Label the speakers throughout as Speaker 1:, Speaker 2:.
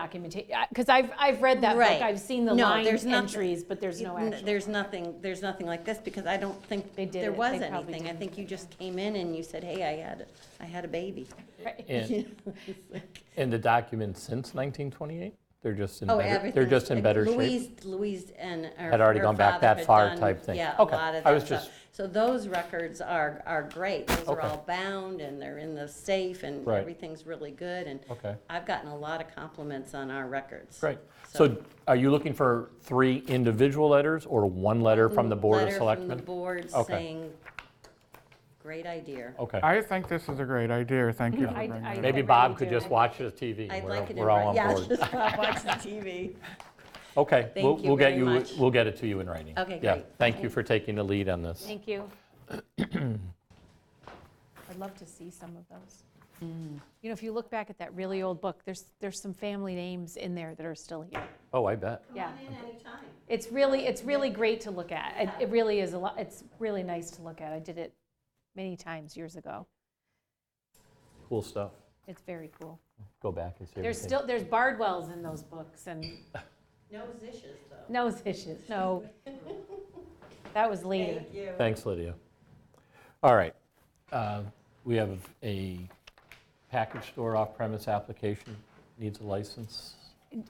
Speaker 1: documentation, because I've, I've read that book,
Speaker 2: Right.
Speaker 1: I've seen the
Speaker 2: No,
Speaker 1: line
Speaker 2: there's noth-
Speaker 1: entries, but there's no
Speaker 2: N-
Speaker 1: action.
Speaker 2: There's nothing, there's nothing like this, because I don't think
Speaker 1: They did
Speaker 2: there
Speaker 1: it.
Speaker 2: was
Speaker 1: They probably
Speaker 2: anything. I
Speaker 1: did.
Speaker 2: think you just came in and you said, hey, I had, I had a baby.
Speaker 3: And, and the documents since 1928? They're just in
Speaker 2: Oh,
Speaker 3: better,
Speaker 2: everything.
Speaker 3: they're just in
Speaker 2: Like
Speaker 3: better shape?
Speaker 2: Louise, Louise and her.
Speaker 3: Had already
Speaker 2: her
Speaker 3: gone
Speaker 2: father
Speaker 3: back that
Speaker 2: had
Speaker 3: far
Speaker 2: done-
Speaker 3: type thing.
Speaker 2: Yeah, a
Speaker 3: Okay.
Speaker 2: lot of
Speaker 3: I
Speaker 2: that
Speaker 3: was
Speaker 2: stuff.
Speaker 3: just-
Speaker 2: So those records are, are great. Those are
Speaker 3: Okay.
Speaker 2: all bound and they're in the safe and
Speaker 3: Right.
Speaker 2: everything's really good. And
Speaker 3: Okay.
Speaker 2: I've gotten a lot of compliments on our records.
Speaker 3: Great.
Speaker 2: So-
Speaker 3: So are you looking for three individual letters or one letter from the Board of
Speaker 2: Letter from the
Speaker 3: Selectmen?
Speaker 2: board
Speaker 3: Okay.
Speaker 2: saying, great idea.
Speaker 3: Okay.
Speaker 4: I think this is a great idea. Thank you for
Speaker 1: I-
Speaker 4: bringing
Speaker 1: I-
Speaker 4: it up.
Speaker 3: Maybe
Speaker 1: really
Speaker 3: Bob could
Speaker 1: do.
Speaker 3: just watch the TV.
Speaker 2: I'd
Speaker 3: We're-
Speaker 2: like it in.
Speaker 3: We're all
Speaker 2: wri-
Speaker 3: on
Speaker 2: Yeah,
Speaker 3: board.
Speaker 2: just watch the TV.
Speaker 3: Okay.
Speaker 2: Thank
Speaker 3: we'll-
Speaker 2: you
Speaker 3: we'll get
Speaker 2: very much.
Speaker 3: We'll get it to you in writing.
Speaker 2: Okay,
Speaker 3: Yeah,
Speaker 2: great.
Speaker 3: Thank you for taking the lead on this.
Speaker 1: Thank you. I'd love to see some of those. Mm. You know, if you look back at that really old book, there's, there's some family names in there that are still here.
Speaker 3: Oh, I bet.
Speaker 1: Yeah,
Speaker 2: in anytime.
Speaker 1: it's really, it's really great to look at. It- It really is a lot, it's really nice to look at. I did it many times years ago.
Speaker 3: Cool stuff.
Speaker 1: It's very cool.
Speaker 3: Go back and see everything.
Speaker 1: There's still, there's Bardwells in those books and
Speaker 2: No zishes, though.
Speaker 1: nose issues, no. That was later.
Speaker 2: Thank you.
Speaker 3: Thanks, Lydia. All right. uh, We have a package store off-premise application, needs a license,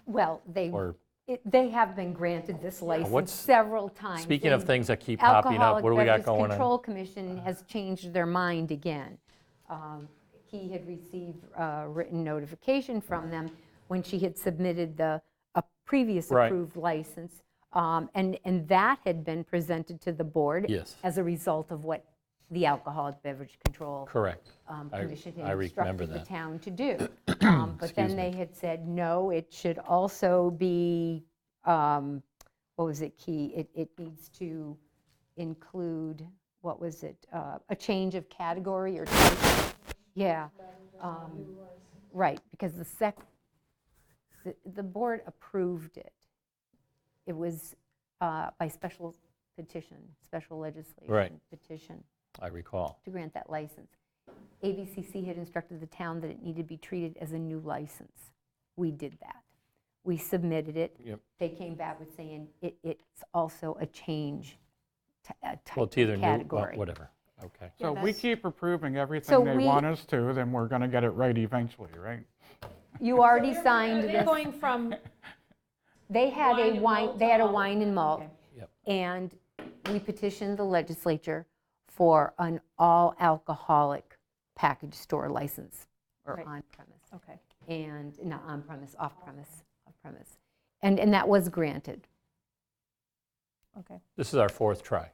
Speaker 5: Well, they,
Speaker 3: or,
Speaker 5: it- they have been granted this
Speaker 3: what's-
Speaker 5: license several times.
Speaker 3: speaking of
Speaker 5: and
Speaker 3: things that keep popping up, what do we got
Speaker 5: Alcoholic Beverages
Speaker 3: going on?
Speaker 5: Control Commission has changed their mind again. Um, He had received uh, written notification from them when she had submitted the, a previous
Speaker 3: Right.
Speaker 5: approved license. um, And, and that had been presented to the board.
Speaker 3: Yes.
Speaker 5: As a result of what the Alcoholic Beverage Control
Speaker 3: Correct.
Speaker 5: um,
Speaker 3: I-
Speaker 5: Commission
Speaker 3: I
Speaker 5: had
Speaker 3: remember
Speaker 5: instructed the
Speaker 3: that.
Speaker 5: town to do. Um, But then they had said, no, it should also be, um, what was it, key? It, it needs to include, what was it, uh, a change of category or type? Yeah. um, Right, because the sec, the- the board approved it. It was uh, by special petition, special legislation.
Speaker 3: Right.
Speaker 5: Petition
Speaker 3: I recall.
Speaker 5: to grant that license. ABCC had instructed the town that it needed to be treated as a new license. We did that. We submitted it.
Speaker 3: Yep.
Speaker 5: They came back with saying it, it's also a change, t- a
Speaker 3: Well,
Speaker 5: type
Speaker 3: it's either
Speaker 5: of
Speaker 3: new, well,
Speaker 5: category.
Speaker 3: whatever. Okay.
Speaker 4: So we keep approving
Speaker 5: So
Speaker 4: everything they
Speaker 5: we-
Speaker 4: want us to, then we're going to get it right eventually, right?
Speaker 5: You already signed
Speaker 1: They're
Speaker 5: this.
Speaker 1: going from,
Speaker 5: They had
Speaker 1: Wine
Speaker 5: a
Speaker 1: and
Speaker 5: wine,
Speaker 1: malt
Speaker 5: they had a
Speaker 1: to all-
Speaker 5: wine and malt.
Speaker 1: Okay.
Speaker 3: Yep.
Speaker 5: And we petitioned the legislature for an all alcoholic package store license or
Speaker 1: Right.
Speaker 5: on premise.
Speaker 1: okay.
Speaker 5: and, not on-premise, off-premise, off-premise. And, and that was granted.
Speaker 1: Okay.
Speaker 3: This is our fourth try.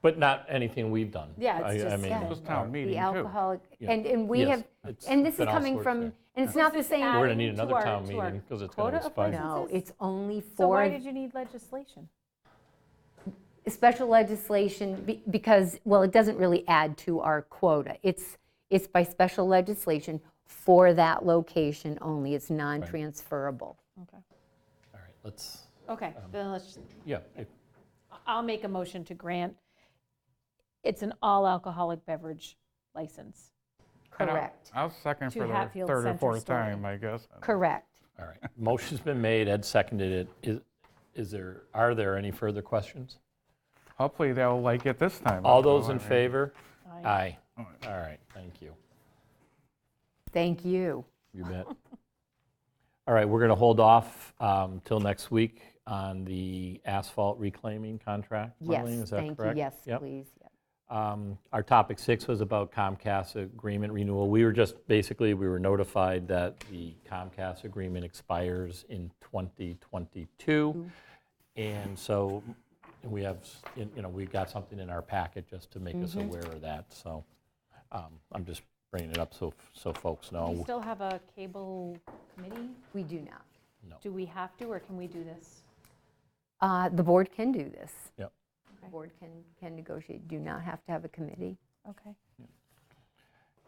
Speaker 3: But not anything we've done.
Speaker 1: Yeah, it's
Speaker 3: I- I
Speaker 1: just-
Speaker 3: mean, um,
Speaker 5: Yeah.
Speaker 4: This town meeting,
Speaker 5: The
Speaker 4: too.
Speaker 5: alcoholic,
Speaker 3: Yeah.
Speaker 5: and, and we
Speaker 3: Yes,
Speaker 5: have,
Speaker 3: it's
Speaker 5: and this is
Speaker 3: been all
Speaker 5: coming
Speaker 3: sorts
Speaker 5: from,
Speaker 3: there.
Speaker 5: and it's not the
Speaker 3: We're
Speaker 5: same.
Speaker 3: going to need
Speaker 1: adding to
Speaker 3: another
Speaker 1: our-
Speaker 3: town
Speaker 1: to our
Speaker 3: meeting because it's going
Speaker 1: quota
Speaker 3: to
Speaker 1: of
Speaker 3: expire.
Speaker 5: No,
Speaker 1: licenses?
Speaker 5: it's only
Speaker 1: So why
Speaker 5: for
Speaker 1: did you need legislation?
Speaker 5: special legislation, be- because, well, it doesn't really add to our quota. It's, it's by special legislation for that location only. It's non-transferable.
Speaker 1: Okay.
Speaker 3: All right, let's,
Speaker 1: Okay,
Speaker 3: Um,
Speaker 1: then let's,
Speaker 3: yeah, if-
Speaker 1: I'll make a motion to grant, it's an all alcoholic beverage license.
Speaker 4: And I'll-
Speaker 5: Correct,
Speaker 4: I'll second
Speaker 1: To
Speaker 4: for the
Speaker 1: Hatfield
Speaker 4: third or
Speaker 1: Center
Speaker 4: fourth
Speaker 1: Story.
Speaker 4: time, I guess.
Speaker 5: correct.
Speaker 3: all right. Motion's been made, Ed seconded it. Is- Is there, are there any further questions?
Speaker 4: Hopefully they'll like it this time.
Speaker 3: All
Speaker 4: also,
Speaker 3: those
Speaker 4: I
Speaker 3: in
Speaker 4: mean,
Speaker 3: favor?
Speaker 1: Aye.
Speaker 3: Aye. All right, thank you.
Speaker 5: Thank you.
Speaker 3: You bet. All right, we're going to hold off um, till next week on the asphalt reclaiming contract.
Speaker 5: Yes,
Speaker 3: Marlene, is that
Speaker 5: thank you,
Speaker 3: correct?
Speaker 5: yes,
Speaker 3: Yep.
Speaker 5: please. Yep.
Speaker 3: Um, Our topic six was about Comcast agreement renewal. We were just, basically, we were notified that the Comcast agreement expires in 2022. And so we have, s- you know, we got something in our packet just to make us aware of that. So um, I'm just bringing it up so, so folks
Speaker 1: Do we
Speaker 3: know.
Speaker 1: still have a cable committee?
Speaker 5: We do not.
Speaker 1: Do we have to, or can we do this?
Speaker 5: Uh, The board can do this.
Speaker 3: Yep.
Speaker 5: The board can, can negotiate, do not have to have a committee.
Speaker 1: Okay.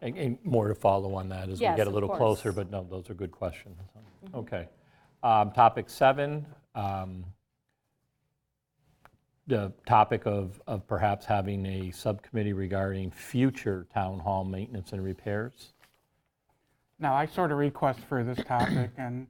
Speaker 3: And- And more to follow on that as we
Speaker 1: Yes,
Speaker 3: get a
Speaker 1: of
Speaker 3: little
Speaker 1: course.
Speaker 3: closer, but no, those are good questions. Okay. Um, Topic seven, um, the topic of of perhaps having a subcommittee regarding future town hall maintenance and repairs.
Speaker 4: Now, I sort of request for this topic, and